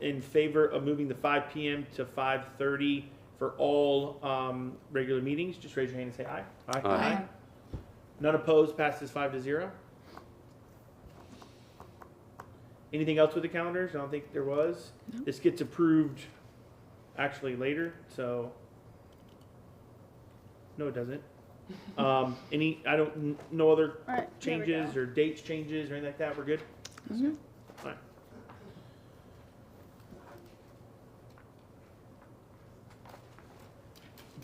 in favor of moving the five PM to five thirty for all, um, regular meetings, just raise your hand and say aye. Aye. None opposed, passes five to zero. Anything else with the calendars? I don't think there was. No. This gets approved actually later, so. No, it doesn't. Um, any, I don't, n- no other All right, there we go. Mm-hmm. changes or dates changes or anything like that? We're good? Mhm. All right.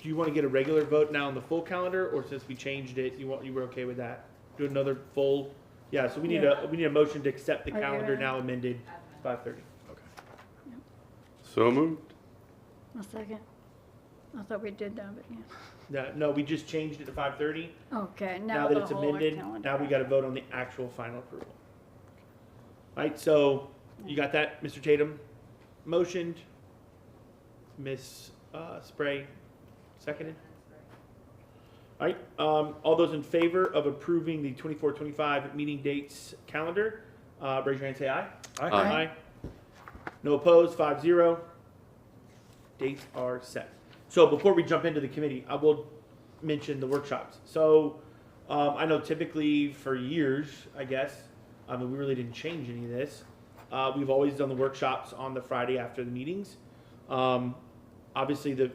Do you want to get a regular vote now on the full calendar, or since we changed it, you want, you were okay with that? Do another full, yeah, so we need a, we need a motion to accept the Are you calendar ready? now amended, five thirty. So moved. A second. I thought we did that, but yeah. No, no, we just changed it to five thirty. Okay, Now now that the it's whole amended, calendar. now we gotta vote on the actual final approval. Alright, so you got that, Mr. Tatum? Motioned. Ms. uh, Spray, seconded. Alright, um, all those in favor of approving the 24-25 meeting dates calendar, uh, raise your hand, and say aye. Aye. No opposed, five zero. Dates are set. So before we jump into the committee, I will mention the workshops. So um, I know typically for years, I guess, I mean, we really didn't change any of this. Uh, we've always done the workshops on the Friday after the meetings. Um, obviously, the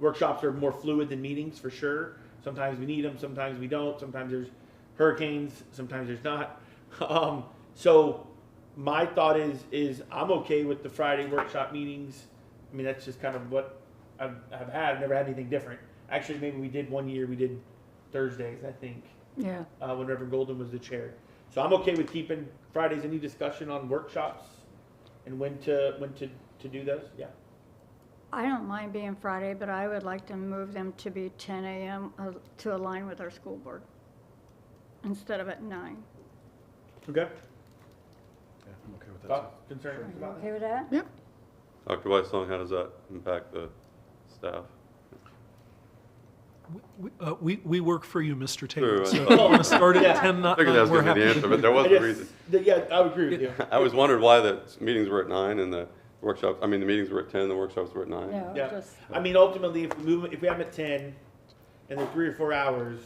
workshops are more fluid than meetings for sure. Sometimes we need them, sometimes we don't. Sometimes there's hurricanes, sometimes there's not. Um, so my thought is is I'm okay with the Friday workshop meetings. I mean that's just kind of what I've, I've had. I've never had anything different. Actually, maybe we did one year. We did Thursdays, I think, Yeah, uh, when Reverend Golden was the chair. So I'm okay with keeping Fridays. Any discussion on workshops and when to when to to do those? Yeah. I don't mind being Friday, but I would like to move them to be ten AM uh, to align with our school board instead of at nine. Okay. Yeah, I'm okay with that. Thoughts, concerns Are you about that? okay with that? Yep. Dr. Weissong, how does that impact the staff? We- uh, We, we work for you, Mr. Taylor. Sure, So if I- you want to start Yeah. at 10, I not figured that 9, was Uh, we're gonna be the happy. answer, but there was I a just- reason. th- yeah, I would agree with you. I always wondered why the meetings were at nine and the workshops, I mean, the meetings were at ten, the workshops were at nine. No, Yeah. just, I mean, ultimately, if we move, if we have them at ten, and they're three or four hours,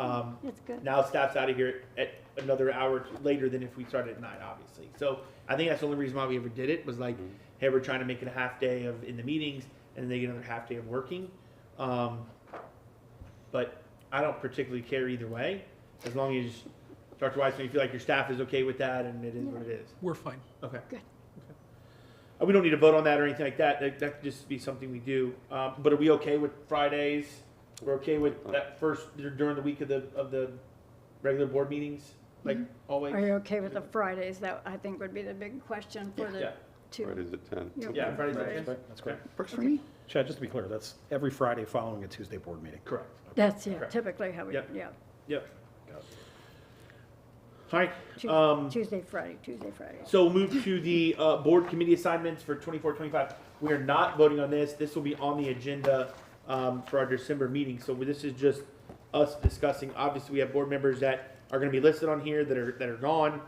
um, it's good. now staff's out of here at another hour later than if we started at nine, obviously. So I think that's the only reason why we ever did it was like, Mm-hmm. hey, we're trying to make it a half day of in the meetings, and then they get another half day of working. Um, but I don't particularly care either way, as long as Dr. Weissman, you feel like your staff is okay with that, and it is what it is. We're fine. Okay. Good. Okay. Uh, We don't need to vote on that or anything like that. That, that could just be something we do. Um, but are we okay with Fridays? We're okay with that first during the week of the of the regular board meetings, like always. Mm-hmm. Are you okay with the Fridays? That, I think, would be the big question for Yeah. the two. Fridays at ten. Yeah. Yeah, Fridays. That's Fridays. great, That's great. Works for me. Chad, just to be clear, that's every Friday following a Tuesday board meeting. Correct. That's, yeah, Correct. typically how we, Yep. yeah. Yep. Got it. All right. Tues- Um, Tuesday, Friday, Tuesday, Friday. So we'll move to the uh, board committee assignments for 24-25. We are not voting on this. This will be on the agenda um, for our December meeting. So this is just us discussing. Obviously, we have board members that are going to be listed on here that are that are gone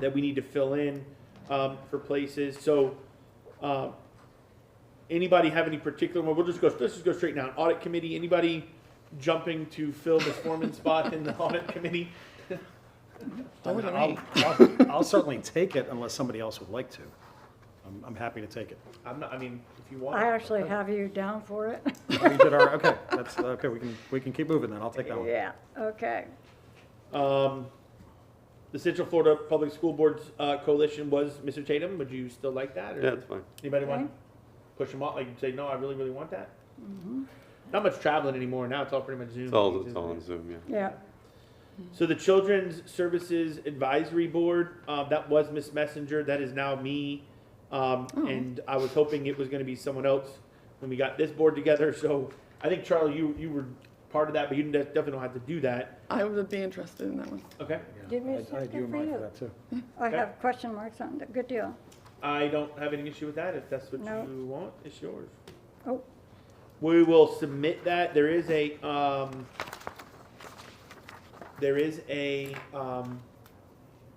that we need to fill in um, for places. So uh, anybody have any particular one? We'll just go. Let's just go straight now. Audit committee. Anybody jumping to fill Ms. Foreman's spot in the audit committee? I mean, I'll- I'll I'll certainly take it unless somebody else would like to. I'm, I'm happy to take it. I'm not. I mean, if you want. I actually have you down for it. We did our, okay, that's, okay, we can, we can keep moving then, I'll take that one. Yeah, okay. Um, the Central Florida Public School Boards uh, Coalition was Mr. Tatum. Would you still like that? Or Yeah, it's fine. Anybody want Okay. to push him off? Like say, no, I really, really want that. Mm-hmm. Not much traveling anymore. Now it's all pretty much Zoom. It's all, it's all on Zoom, yeah. Yeah, So the Children's Services Advisory Board, uh, that was Miss Messenger. That is now me. Um, Oh. And I was hoping it was going to be someone else when we got this board together. So I think Charlie, you you were part of that, but you didn't- definitely don't have to do that. I would be interested in that one. Okay. Give me a I- I second do for mine you. for that too. I Okay. have question marks on it. Good deal. I don't have any issue with that. If that's what No. you want, it's yours. Oh. We will submit that. There is a, um, there is a, um,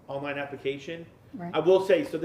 online application Right. I will say, so